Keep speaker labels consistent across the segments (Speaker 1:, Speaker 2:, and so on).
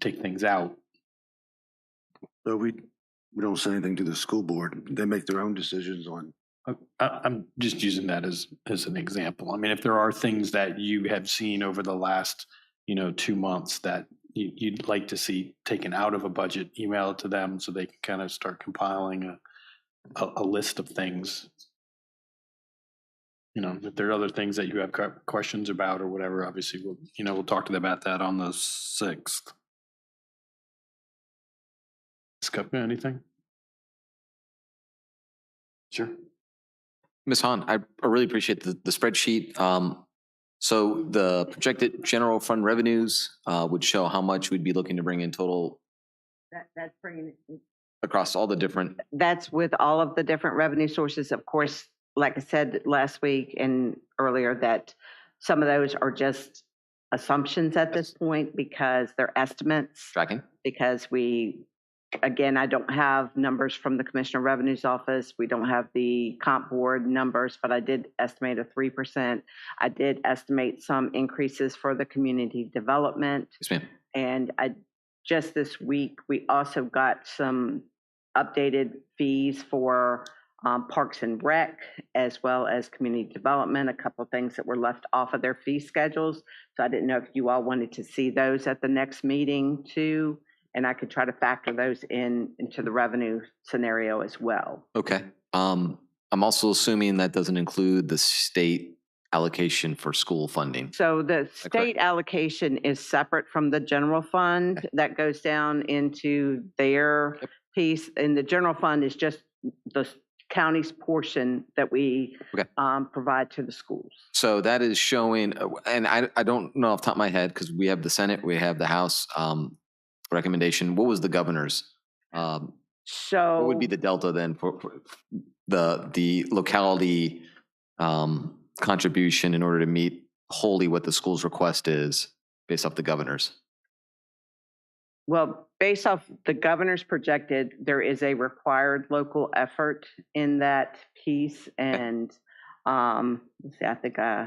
Speaker 1: take things out.
Speaker 2: So we, we don't say anything to the school board. They make their own decisions on.
Speaker 1: I, I- I'm just using that as, as an example. I mean, if there are things that you have seen over the last, you know, two months that you, you'd like to see taken out of a budget, email it to them so they can kind of start compiling a, a, a list of things. You know, if there are other things that you have que- questions about or whatever, obviously, we'll, you know, we'll talk to them about that on the sixth. Scott, anything? Sure.
Speaker 3: Ms. Han, I I really appreciate the, the spreadsheet. Um, so the projected general fund revenues, uh, would show how much we'd be looking to bring in total
Speaker 4: That, that's bringing, it-
Speaker 3: across all the different,
Speaker 4: that's with all of the different revenue sources, of course, like I said last week and earlier, that some of those are just assumptions at this point because they're estimates,
Speaker 3: tracking?
Speaker 4: because we, again, I don't have numbers from the Commissioner of Revenue's Office. We don't have the comp board numbers, but I did estimate a three percent. I did estimate some increases for the community development.
Speaker 3: Yes, ma'am.
Speaker 4: And I, just this week, we also got some updated fees for um, Parks and Rec as well as community development, a couple of things that were left off of their fee schedules. So I didn't know if you all wanted to see those at the next meeting too. And I could try to factor those in into the revenue scenario as well.
Speaker 3: Okay. Um, I'm also assuming that doesn't include the state allocation for school funding.
Speaker 4: So the
Speaker 3: that correct?
Speaker 4: state allocation is separate from the general fund. That goes down into their
Speaker 3: Yep.
Speaker 4: piece. And the general fund is just the s- county's portion that we
Speaker 3: Okay.
Speaker 4: um, provide to the schools.
Speaker 3: So that is showing, uh, and I, I don't know off the top of my head, because we have the Senate, we have the House, um, recommendation. What was the governor's? Um,
Speaker 4: So.
Speaker 3: What would be
Speaker 4: Oh.
Speaker 3: the delta then for for the, the locality um, contribution in order to meet wholly what the school's request is based off the governor's?
Speaker 4: Well, based off the governor's projected, there is a required local effort in that piece and, um, let's see, I think, uh,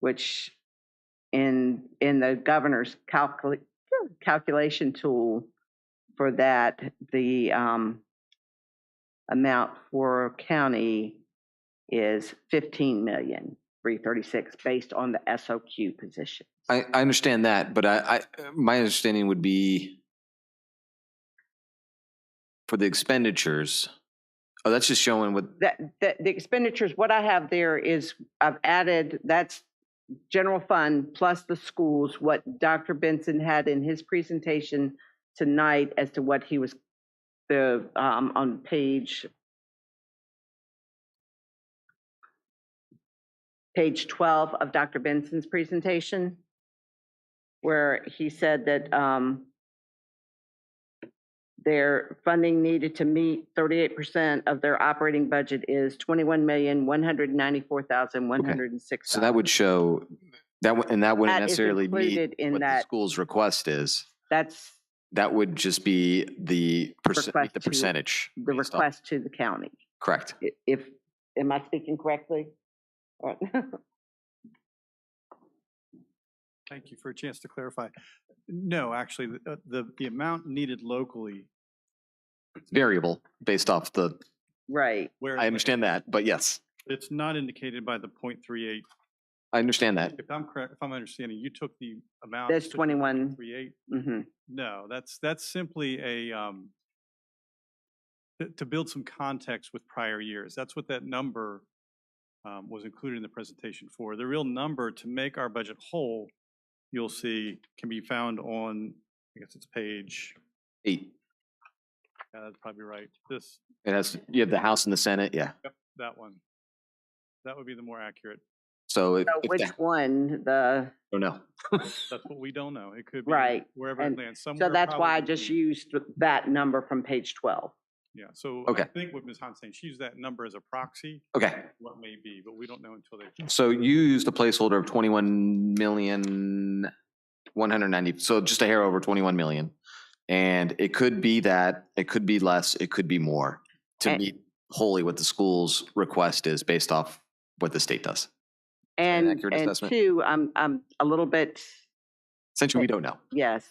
Speaker 4: which in, in the governor's calcul- calculation tool for that, the, um, amount for county is fifteen million, three thirty-six, based on the SOQ position.
Speaker 3: I, I understand that, but I, I, my understanding would be for the expenditures, oh, that's just showing what,
Speaker 4: that, that the expenditures, what I have there is I've added, that's general fund plus the schools, what Dr. Benson had in his presentation tonight as to what he was, the, um, on page page twelve of Dr. Benson's presentation, where he said that, um, their funding needed to meet thirty-eight percent of their operating budget is twenty-one million, one hundred ninety-four thousand, one hundred and six.
Speaker 3: so that would show, that, would- and that wouldn't
Speaker 4: That is
Speaker 3: necessarily meet
Speaker 4: included in
Speaker 3: what the
Speaker 4: that-
Speaker 3: school's request is.
Speaker 4: That's
Speaker 3: That would just be the percent,
Speaker 4: Request
Speaker 3: the
Speaker 4: to-
Speaker 3: percentage.
Speaker 4: the
Speaker 3: based off-
Speaker 4: request to the county.
Speaker 3: Correct.
Speaker 4: I- If, am I speaking correctly? Or-
Speaker 5: Thank you for a chance to clarify. No, actually, the, uh, the, the amount needed locally
Speaker 3: variable based off the,
Speaker 4: Right,
Speaker 5: where.
Speaker 3: I understand that, but yes,
Speaker 5: It's not indicated by the point three eight.
Speaker 3: I understand that.
Speaker 5: If I'm correct, if I'm understanding, you took the amount.
Speaker 4: there's twenty-one,
Speaker 5: Three eight.
Speaker 4: hmm
Speaker 5: No, that's, that's simply a, um, to, to build some context with prior years. That's what that number, um, was included in the presentation for. The real number to make our budget whole, you'll see, can be found on, I guess it's page,
Speaker 3: Eight,
Speaker 5: yeah, that's probably right. This,
Speaker 3: it has, you have the House and the Senate, yeah.
Speaker 5: That one. That would be the more accurate.
Speaker 3: So if,
Speaker 4: So
Speaker 3: if
Speaker 4: which
Speaker 3: the- I
Speaker 4: one, the,
Speaker 3: don't know.
Speaker 5: That's what we don't know. It could be.
Speaker 4: Right,
Speaker 5: Wherever it
Speaker 4: and
Speaker 5: lands, somewhere.
Speaker 4: so that's why I
Speaker 5: probably
Speaker 4: just
Speaker 5: between-
Speaker 4: used that number from page twelve.
Speaker 5: Yeah, so I
Speaker 3: Okay.
Speaker 5: think what Ms. Han's saying, she used that number as a proxy,
Speaker 3: Okay,
Speaker 5: what may be, but we don't know until they.
Speaker 3: so you used a placeholder of twenty-one million, one hundred ninety, so just a hair over twenty-one million. And it could be that, it could be less, it could be more to
Speaker 4: And-
Speaker 3: meet wholly what the school's request is based off what the state does. an
Speaker 4: And,
Speaker 3: accurate
Speaker 4: and
Speaker 3: assessment?
Speaker 4: two, I'm, I'm a little bit, Eh.
Speaker 3: Essentially, we don't know.
Speaker 4: yes,